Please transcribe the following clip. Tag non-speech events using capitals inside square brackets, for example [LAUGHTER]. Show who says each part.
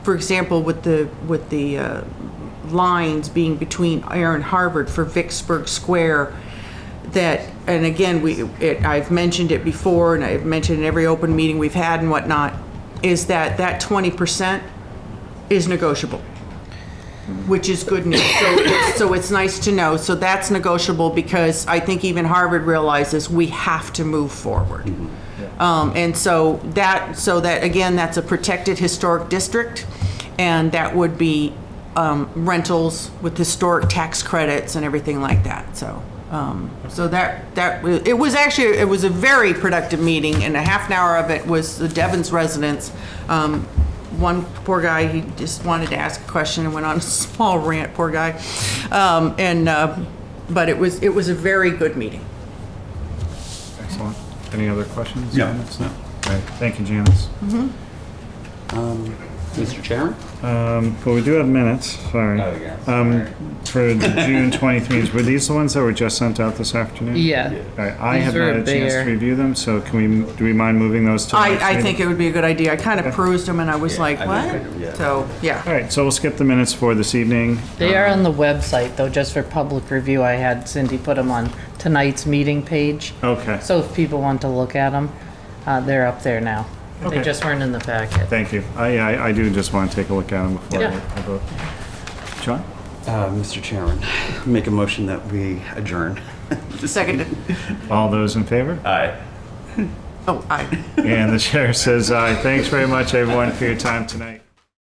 Speaker 1: for example, with the, with the uh, lines being between Air and Harvard for Vicksburg Square, that, and again, we, it, I've mentioned it before, and I've mentioned in every open meeting we've had and whatnot, is that that twenty percent is negotiable, which is good news. So, it's- so it's nice to know. So that's negotiable because I think even Harvard realizes we have to move forward. Um, and so that, so that, again, that's a protected historic district, and that would be, um, rentals with historic tax credits and everything like that, so. Um, so that, that, wa- it was actually, it was a very productive meeting, and a half an hour of it was the Devon's residents. Um, one poor guy, he just wanted to ask a question and went on a [LAUGHS] small rant, poor guy. Um, and, uh, but it was, it was a very good meeting.
Speaker 2: Excellent. Any other questions?
Speaker 3: No.
Speaker 2: comments? No. All right. Thank you, Janice.
Speaker 3: Mr. Chairman?
Speaker 2: Um, But we do have minutes, sorry.
Speaker 3: Oh, yeah.
Speaker 2: Um, For
Speaker 3: Sorry.
Speaker 2: the June 23s, were these the ones that were just sent out this afternoon?
Speaker 4: Yeah.
Speaker 2: All right, I
Speaker 4: These
Speaker 2: have
Speaker 4: are
Speaker 2: not had a chance to
Speaker 4: there.
Speaker 2: review them, so can we, do we mind moving those to the next
Speaker 1: I, I
Speaker 2: meeting?
Speaker 1: think it would be a good idea. I kind of perused them and I was like,
Speaker 3: I
Speaker 1: what?
Speaker 3: did kind of, yeah.
Speaker 1: So,
Speaker 2: All
Speaker 1: yeah.
Speaker 2: right, so we'll skip the minutes for this evening.
Speaker 4: They are on the website, though, just for public review. I had Cindy put them on tonight's meeting page.
Speaker 2: Okay.
Speaker 4: So if people want to look at them, uh, they're up there now. They
Speaker 2: Okay.
Speaker 4: just weren't in the packet.
Speaker 2: Thank you. I, I I do just want to take a look at them before I
Speaker 4: Yeah.
Speaker 2: I vote. John?
Speaker 3: Uh, Mr. Chairman, make a motion that we adjourn.
Speaker 1: Seconded.
Speaker 2: All those in favor?
Speaker 3: Aye.
Speaker 1: Oh, I.
Speaker 2: And the chair says aye. Thanks very much, everyone, for your time tonight.